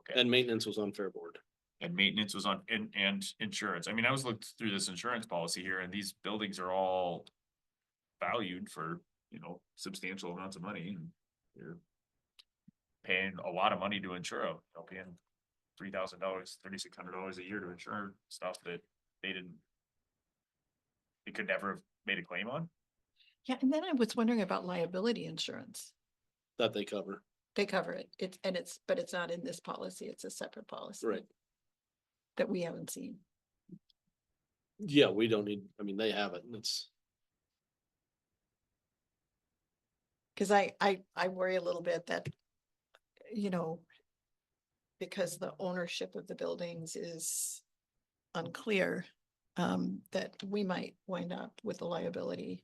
Okay. and maintenance was on Fair Board. And maintenance was on, and, and insurance. I mean, I was looked through this insurance policy here and these buildings are all valued for, you know, substantial amounts of money and you're paying a lot of money to insure them, you know, paying three thousand dollars, thirty-six hundred dollars a year to insure stuff that they didn't they could never have made a claim on. Yeah, and then I was wondering about liability insurance. that they cover. They cover it. It's, and it's, but it's not in this policy. It's a separate policy. Right. That we haven't seen. Yeah, we don't need, I mean, they have it and it's, Cause I, I, I worry a little bit that, you know, because the ownership of the buildings is unclear, um, that we might wind up with a liability.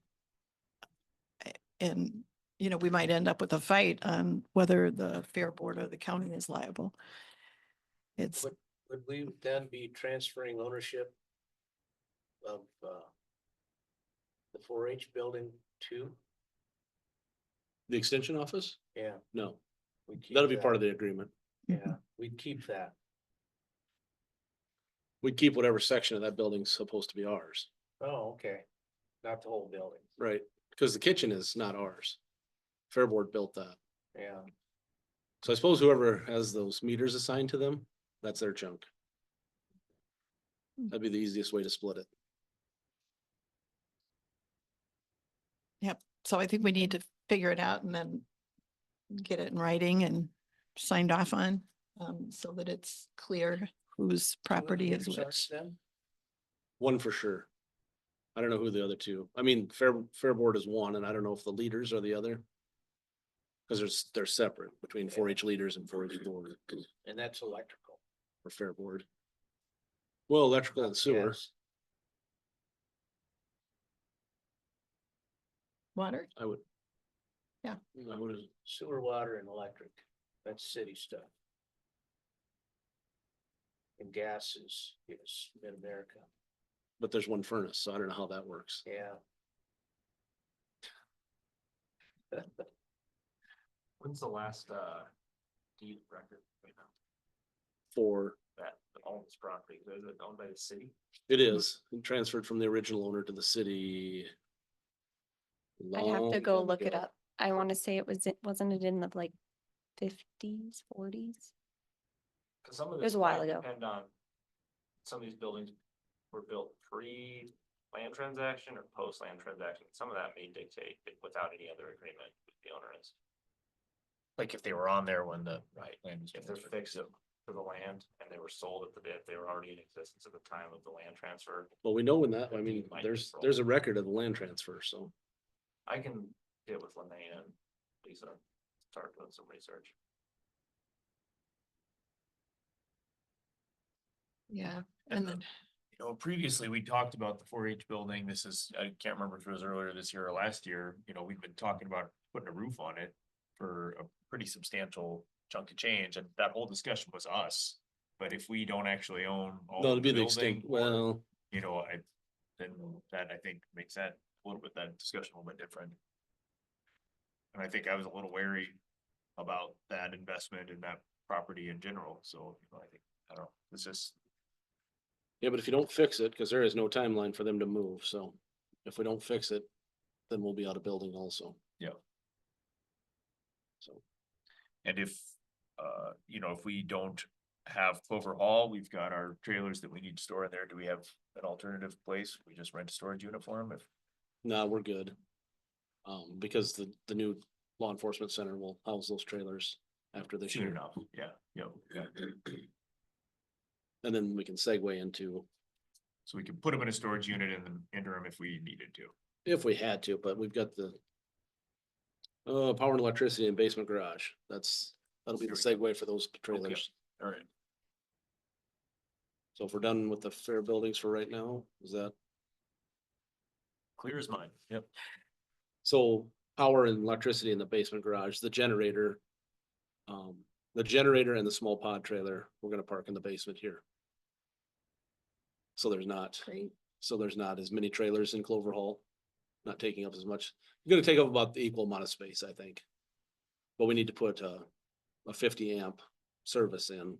A- And, you know, we might end up with a fight on whether the fair board or the county is liable. It's, Would, would we then be transferring ownership of, uh, the four H building to? the extension office? Yeah. No, that'll be part of the agreement. Yeah, we'd keep that. We keep whatever section of that building's supposed to be ours, Oh, okay. Not the whole building. right? Because the kitchen is not ours. Fair Board built that. Yeah, So I suppose whoever has those meters assigned to them, that's their chunk. Hmm. That'd be the easiest way to split it. so I think we need to figure it out and then get it in writing and signed off on, um, so that it's clear whose property is meters are which. then? One for sure. I don't know who the other two, I mean, Fair, Fair Board is one, and I don't know if the leaders are the other. Because they're, s- they're separate between four H leaders and four H board and that's electrical. or Fair Board. Well, electrical and sewer, Yes. Water? I would. Yeah. I would, Sewer, water and electric. That's city stuff. And gas is, is mid-America. but there's one furnace, so I don't know how that works. Yeah. When's the last, uh, deed record? For, That owns property, is it owned by the city? it Mm-hmm. is it transferred from the original owner to the city. I'd have to long go time look it ago. up. I want to say it was, it wasn't it in the like fifties, forties? Cause some of It was this a while might ago. Depend on, some of these buildings were built pre-land transaction or post-land transaction, some of that may dictate that without any other agreement with the owner is. Like if they were on there when the. Right, if they're fixed to to the land and they were sold at the bid, they were already in existence at the time of the land transfer, Well, we know when that, I That'd mean, be my there's, control. there's a record of the land transfer, so I can get with Lene and Lisa, start doing some research. Yeah, And and the- then, you know, previously, we talked about the four H building. This is, I can't remember if it was earlier this year or last year, you know, we've been talking about putting a roof on it. For a pretty substantial chunk of change, and that whole discussion was us. But if we don't actually own. all that'll be the building, extent, well, You know, I, then that I think makes that a little bit, that discussion a little bit different. And I think I was a little wary about that investment and that property in general, so you know, I think, I don't know, it's just. yeah, but if you don't fix it, because there is no timeline for them to move, so if we don't fix it, then we'll be out of building also. Yeah. So, And if, uh, you know, if we don't have Clover Hall, we've got our trailers that we need to store in there. Do we have an alternative place? We just rent a storage uniform if, nah, we're good. Um, because the, the new law enforcement center will house those trailers after this soon year. enough, yeah, you know, And then we can segue into, So we can put them in a storage unit in the interim if we needed to. if we had to, but we've got the uh, power and electricity and basement garage. That's, that'll be the There segue for those trailers. All right. So if we're done with the fair buildings for right now, is that, Clear as mine. Yep. so power and electricity in the basement garage, the generator. Um, the generator and the small pod trailer, we're gonna park in the basement here. So there's not, great, so there's not as many trailers in Clover Hall, not taking up as much, gonna take up about the equal amount of space, I think. But we need to put uh a fifty amp service in